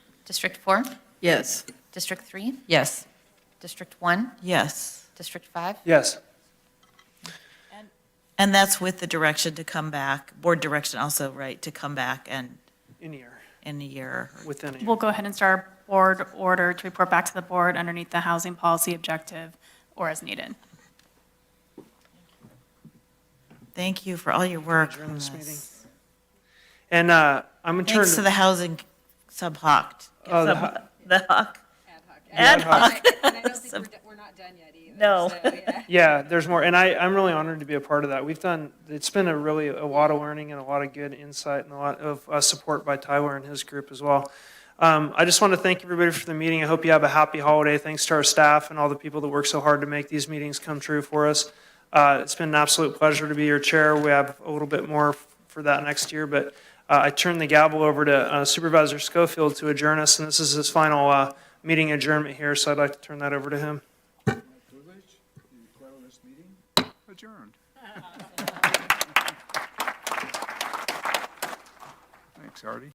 District 4, Yes. District 3, Yes. District 1, Yes. District 5, Yes. And that's with the direction to come back, board direction also, right, to come back and In here, in a year. within a year. We'll go ahead and start our board order to report back to the board underneath the housing policy objective or as needed. Thank you for all your work Adjourn on this this. And uh, I'm in turn, Thanks to the housing subhoc. Oh, the sub- The hoc. Ad Ad hoc. hoc. And I don't think we're, do- we're not done yet either. No. so, yeah. yeah, there's more, and I, I'm really honored to be a part of that. We've done, it's been a really, a lot of learning and a lot of good insight and a lot of uh, support by Tyler and his group as well. Um, I just want to thank everybody for the meeting. I hope you have a happy holiday. Thanks to our staff and all the people that work so hard to make these meetings come true for us. Uh, It's been an absolute pleasure to be your chair. We have a little bit more f- for that next year, but uh, I turn the gavel over to uh, Supervisor Schofield to adjourn us, and this is his final uh, meeting adjournment here, so I'd like to turn that over to him. privilege, you declare this meeting adjourned. Thanks, Artie.